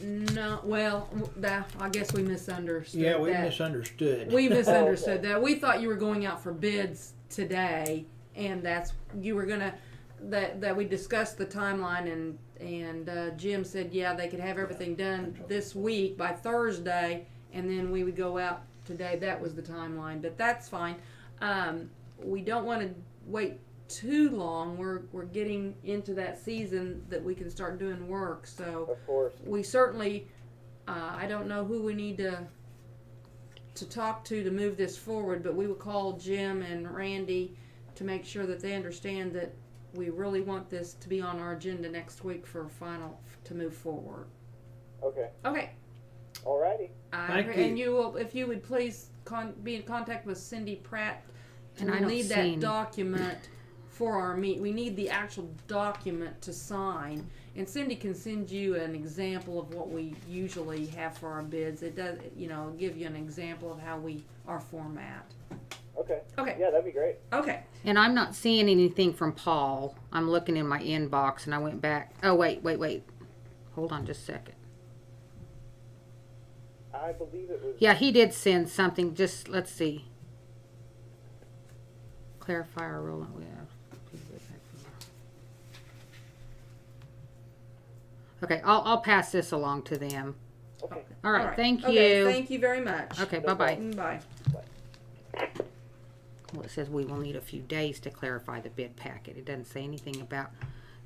No, well, w- that, I guess we misunderstood. Yeah, we that. misunderstood. We misunderstood that. We thought you were going out for bids today, and that's you were gonna that that we discussed the timeline and and uh, Jim said yeah they could have everything done this week by Thursday, and then we would go out today. That was the timeline, but that's fine. Um, we don't want to wait too long. We're we're getting into that season that we can start doing work. So Of course. we certainly, uh, I don't know who we need to to talk to to move this forward, but we will call Jim and Randy to make sure that they understand that we really want this to be on our agenda next week for final to move forward. Okay. Okay. Alrighty. I Thank agree. you. And you will, if you would please con- be in contact with Cindy Pratt, and And I I don't need see that any. document for our meet. We need the actual document to sign, and Cindy can send you an example of what we usually have for our bids. It does, you know, give you an example of how we, our format. Okay. Okay. Yeah, that'd be great. Okay, And I'm not seeing anything from Paul. I'm looking in my inbox and I went back. Oh, wait, wait, wait. Hold on just a second. I believe it was. Yeah, he did send something. Just let's see. Clarify our rule. Yeah. Okay, I'll, I'll pass this along to them. Okay. All right, thank Okay, you. Thank you very much. okay, bye bye. Mm, Bye. Well, it says we will need a few days to clarify the bid packet. It doesn't say anything about,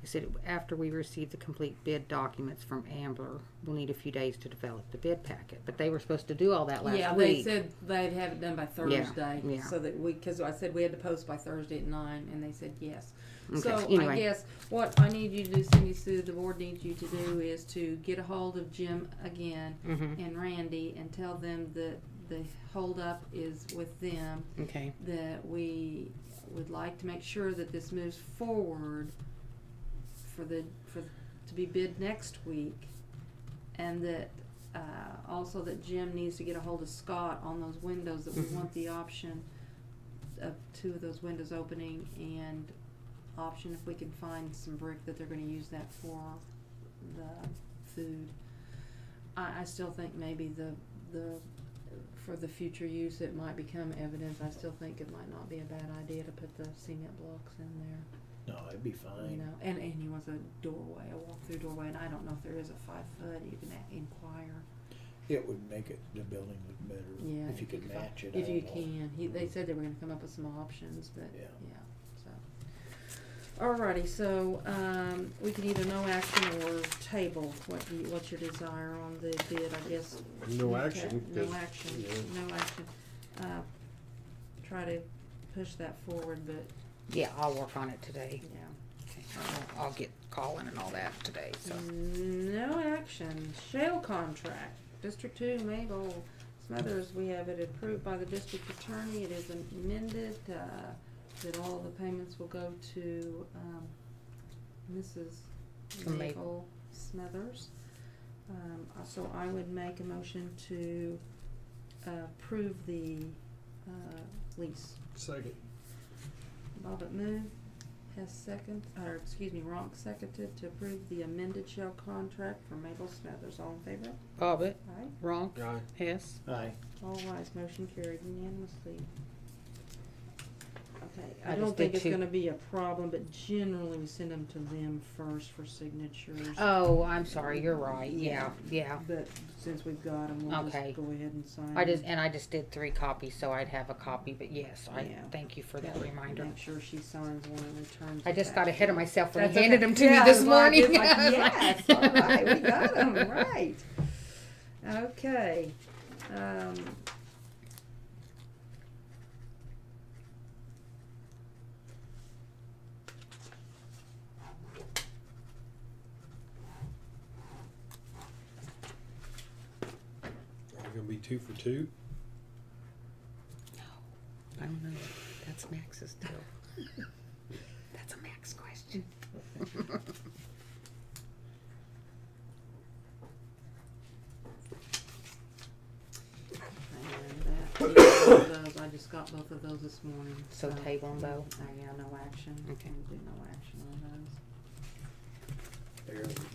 it said after we receive the complete bid documents from Ambler, we'll need a few days to develop the bid packet. But they were supposed to do all that last yeah, week. they said they'd have it done by Thursday, yeah. so that we, because I said we had to post by Thursday at nine, and they said yes. Okay, So I anyway. guess what I need you to do, Cindy Sue, the board needs you to do is to get a hold of Jim again hmm and Randy and tell them that the holdup is with them, Okay. that we would like to make sure that this moves forward for the, for, to be bid next week. And that, uh, also that Jim needs to get a hold of Scott on those windows, that we Mhm. want the option of two of those windows opening and option if we can find some brick that they're gonna use that for the food. I, I still think maybe the, the, for the future use, it might become evidence, I still think it might not be a bad idea to put the cement blocks in there. No, it'd be You fine. know, and, and he wants a doorway, a walk-through doorway, and I don't know if there is a five foot, you can a- inquire. It would make it, the building look Yeah. better, if you could fi- match it. I If you don't know. can, he, they said they were gonna come up with some options, but, Yeah. yeah, so. Alrighty, so, um, we can either no action or table, what do you, what's your desire on the bid, I guess? No Okay, action. No 'cause, action, you know, no action, uh, try to push that forward, but, Yeah, I'll work on it today. yeah. I'll, I'll get calling and all that today. So Mm-hmm. No action. Shale contract. District two, Mabel Smothers, we have it approved by the district attorney. It is amended, uh, that all the payments will go to, um, Mrs. To Mabel. Mabel Smothers. Um, uh, so I would make a motion to uh, approve the, uh, lease. Second. Bobbit moved, Hess second, or excuse me, Ronk seconded to approve the amended shell contract for Mabel Smathers. All in favor? Bobbit, Aye. wrong, Aye. Hess. Aye, All ayes, motion carried unanimously. Okay, I I just don't think did it's two. gonna be a problem, but generally we send them to them first for signatures. Oh, I'm sorry. You're right. Yeah, yeah. But since we've got them, we'll just Okay. go ahead and sign. I just them. and I just did three copies, so I'd have a copy. But yes, I Yeah. thank you for that Yeah, reminder. Make sure she signs one and returns. I it just back got to ahead of you. myself when That's he handed okay. them to Yeah, me it this was like- morning. it's like, I was like- yes, all right, we got 'em, right. Okay. Um, Are we gonna be two for two? I don't know. That's Max's deal. That's a Max question. and that- both of those, I just got both of those this morning. So table 'em both? Uh, yeah, no action. Okay. We'll do no action on those. there,